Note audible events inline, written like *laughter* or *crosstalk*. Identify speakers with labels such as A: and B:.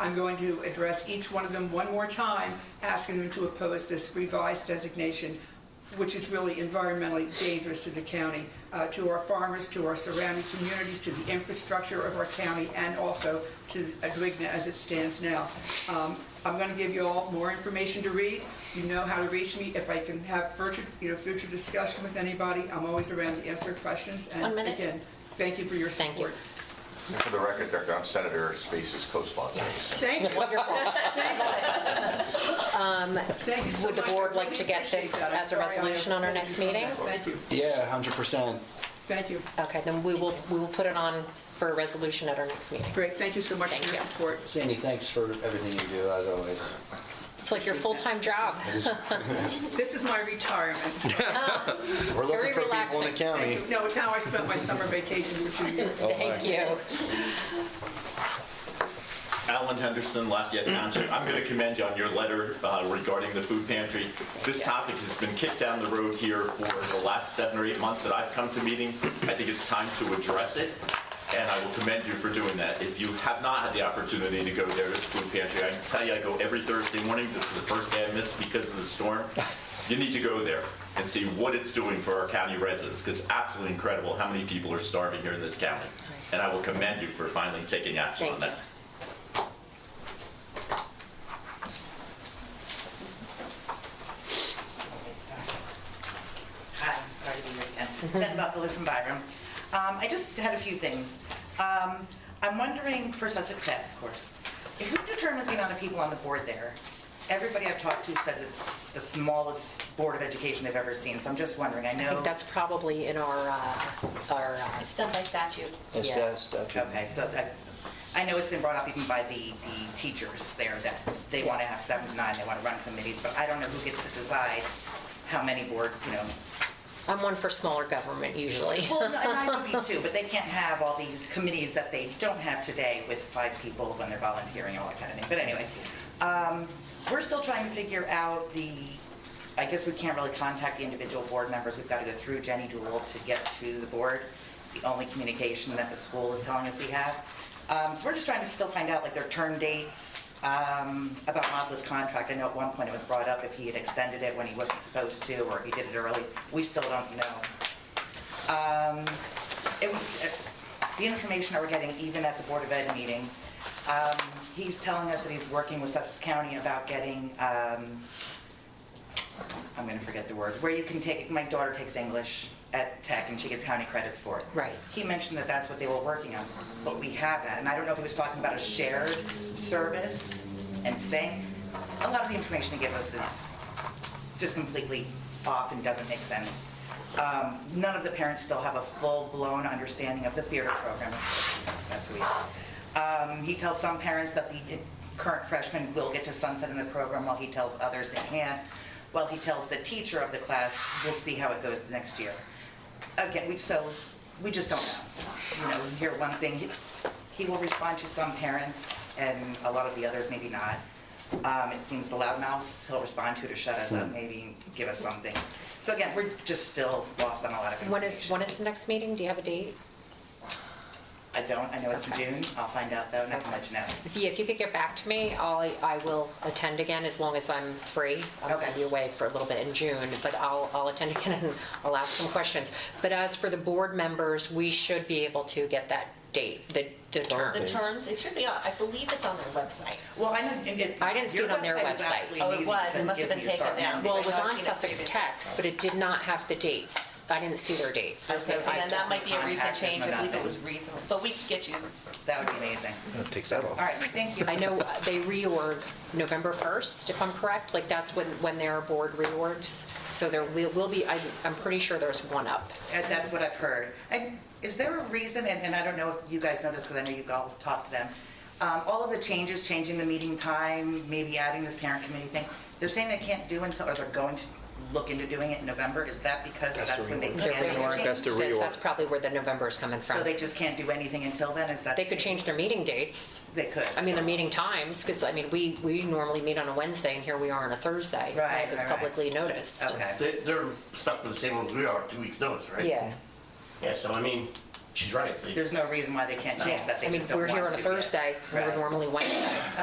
A: I'm going to address each one of them one more time, asking them to oppose this revised designation, which is really environmentally dangerous to the county, uh, to our farmers, to our surrounding communities, to the infrastructure of our county, and also to Adwigna as it stands now. Um, I'm going to give you all more information to read. You know how to reach me. If I can have future, you know, future discussion with anybody, I'm always around to answer questions. And
B: One minute.
A: Again, thank you for your
B: Thank you.
A: support.
C: For the record, Dr. I'm Senator Space's co-sponsor.
A: Thank you.
B: Wonderful.
A: Thank you so
B: Would the
A: much. I
B: board like
A: really
B: to get
A: appreciate
B: this
A: that. I'm
B: as a
A: sorry I
B: resolution on our next
A: overlooked
B: meeting?
A: that. Thank you.
D: Yeah, hundred percent.
A: Thank you.
B: Okay, then we will, we will put it on for a resolution at our next meeting.
A: Great, thank you so much for
B: Thank
A: your
B: you.
A: support.
D: Sandy, thanks for everything you do, as always.
B: It's like your full-time job.
A: This is my retirement.
D: We're
B: Very
D: looking for people in
B: relaxing.
D: the county.
A: Thank you. No, it's how I spent my summer vacation for two years.
B: Thank you.
E: Alan Henderson, Lafayette Township. I'm going to commend you on your letter uh, regarding the food pantry. This topic has been kicked down the road here for the last seven or eight months that I've come to meeting. I think it's time to address it, and I will commend you for doing that. If you have not had the opportunity to go there to the food pantry, I can tell you I go every Thursday morning. This is the first day I missed because of the storm. You need to go there and see what it's doing for our county residents, 'cause it's absolutely incredible how many people are starving here in this county. And I will commend you for finally taking action on
B: Thank
E: that.
B: you.
F: Hi, I'm sorry to be here
B: *laughs*
F: again. Jen Buckley from Byram. Um, I just had a few things. Um, I'm wondering, for Sussex Tech, of course, who determines the amount of people on the board there? Everybody I've talked to says it's the smallest board of education they've ever seen, so I'm just wondering, I know...
B: I think that's probably in our, uh, our, uh,
G: It's done by statute.
D: Yes,
B: Yeah.
D: yes, definitely.
F: Okay, so that, I know it's been brought up even by the, the teachers there that they want to have seven to nine, they want to run committees, but I don't know who gets to decide how many board, you know,
B: I'm one for smaller government
F: *laughs*
B: usually.
F: Well, no, and I would be too, but they can't have all these committees that they don't have today with five people when they're volunteering and all that kind of thing. But anyway, um, we're still trying to figure out the, I guess we can't really contact the individual board members. We've got to go through Jenny Doolittle to get to the board. It's the only communication that the school is telling us we have. Um, So we're just trying to still find out like their term dates, um, about Modla's contract. I know at one point it was brought up if he had extended it when he wasn't supposed to, or if he did it early. We still don't know it was- uh, the information that we're getting, even at the Board of Ed meeting, um, he's telling us that he's working with Sussex County about getting, um, I'm going to forget the word, where you can take, my daughter takes English at Tech and she gets county credits for it.
B: Right.
F: He mentioned that that's what they were working on, but we have that. And I don't know if he was talking about a shared service and saying, a lot of the information he gives us is just completely off and doesn't make sense. Um, None of the parents still have a full-blown understanding of the theater program. That's weird. Um, He tells some parents that the current freshmen will get to sunset in the program, while he tells others they can't. While he tells the teacher of the class, we'll see how it goes next year. Again, we, so, we just don't know. You know, you hear one thing, he- he will respond to some parents, and a lot of the others maybe not. Um, It seems the loudmouths, he'll respond to to shut us
D: Hmm.
F: up, maybe give us something. So again, we're just still lost on a lot of
B: When is,
F: information.
B: when is the next meeting? Do you have a date?
F: I don't, I know it's in June, I'll find out though, and I can let you know.
B: If you, if you could get back to me, I'll, I will attend again as long as I'm free. I'm going to
F: Okay.
B: be away for a little bit in June, but I'll, I'll attend *laughs* again and I'll ask some questions. But as for the board members, we should be able to get that date, the, the
G: The
B: terms.
G: terms, it should be on, I believe it's on their website.
F: Well, I know, and it.
B: I didn't see
F: your
B: it on their
F: is
B: website.
F: absolutely
G: Oh, it
F: amazing
G: was. It
F: because
G: must have
F: gives
G: been
F: me your
G: taken
F: start
G: down.
F: number.
B: Well, it was on
G: I've seen it
B: Sussex
G: previously.
B: Text, but it did not have the dates. I didn't see their dates.
F: Okay.
G: And then that might be a recent
F: Contact us,
G: change, I
F: no
G: believe
F: nothing.
G: it was recent, but we can get you.
F: That would be amazing.
D: That Takes that off.
F: All right, thank you.
B: I know uh, they reorg November 1st, if I'm correct, like that's when, when their board reorgs. So there will will be, I- I'm pretty sure there's one up.
F: And That's what I've heard. And is there a reason, and, and I don't know if you guys know this, because I know you've all talked to them, um, all of the changes, changing the meeting time, maybe adding this parent committee thing, they're saying they can't do until, or they're going to look into doing it in November, is that because
D: That's
F: that's
D: the
F: when they
D: reorg.
F: can
B: The
F: do
B: reorg.
F: the
D: That's the
F: change?
B: That's,
D: reorg.
B: that's probably where the November is coming
F: So
B: from.
F: they just can't do anything until then, is that?
B: They
F: the
B: could
F: case?
B: change their meeting dates.
F: They could.
B: I mean, their meeting times, because I mean, we, we normally meet on a Wednesday and here we are on a Thursday.
F: Right,
B: It's
F: right, right.
B: publicly noticed.
F: Okay.
H: They, they're stuck with the same rules we are, two weeks notice, right?
B: Yeah.
H: Yeah, so I mean, she's right. They-
F: There's no reason why they can't change
B: Yeah.
F: that,
B: I
F: they
B: mean,
F: just don't
B: we're
F: want to.
B: here on a
F: yet.
B: Thursday, we we're
F: Right.
B: normally Wednesday.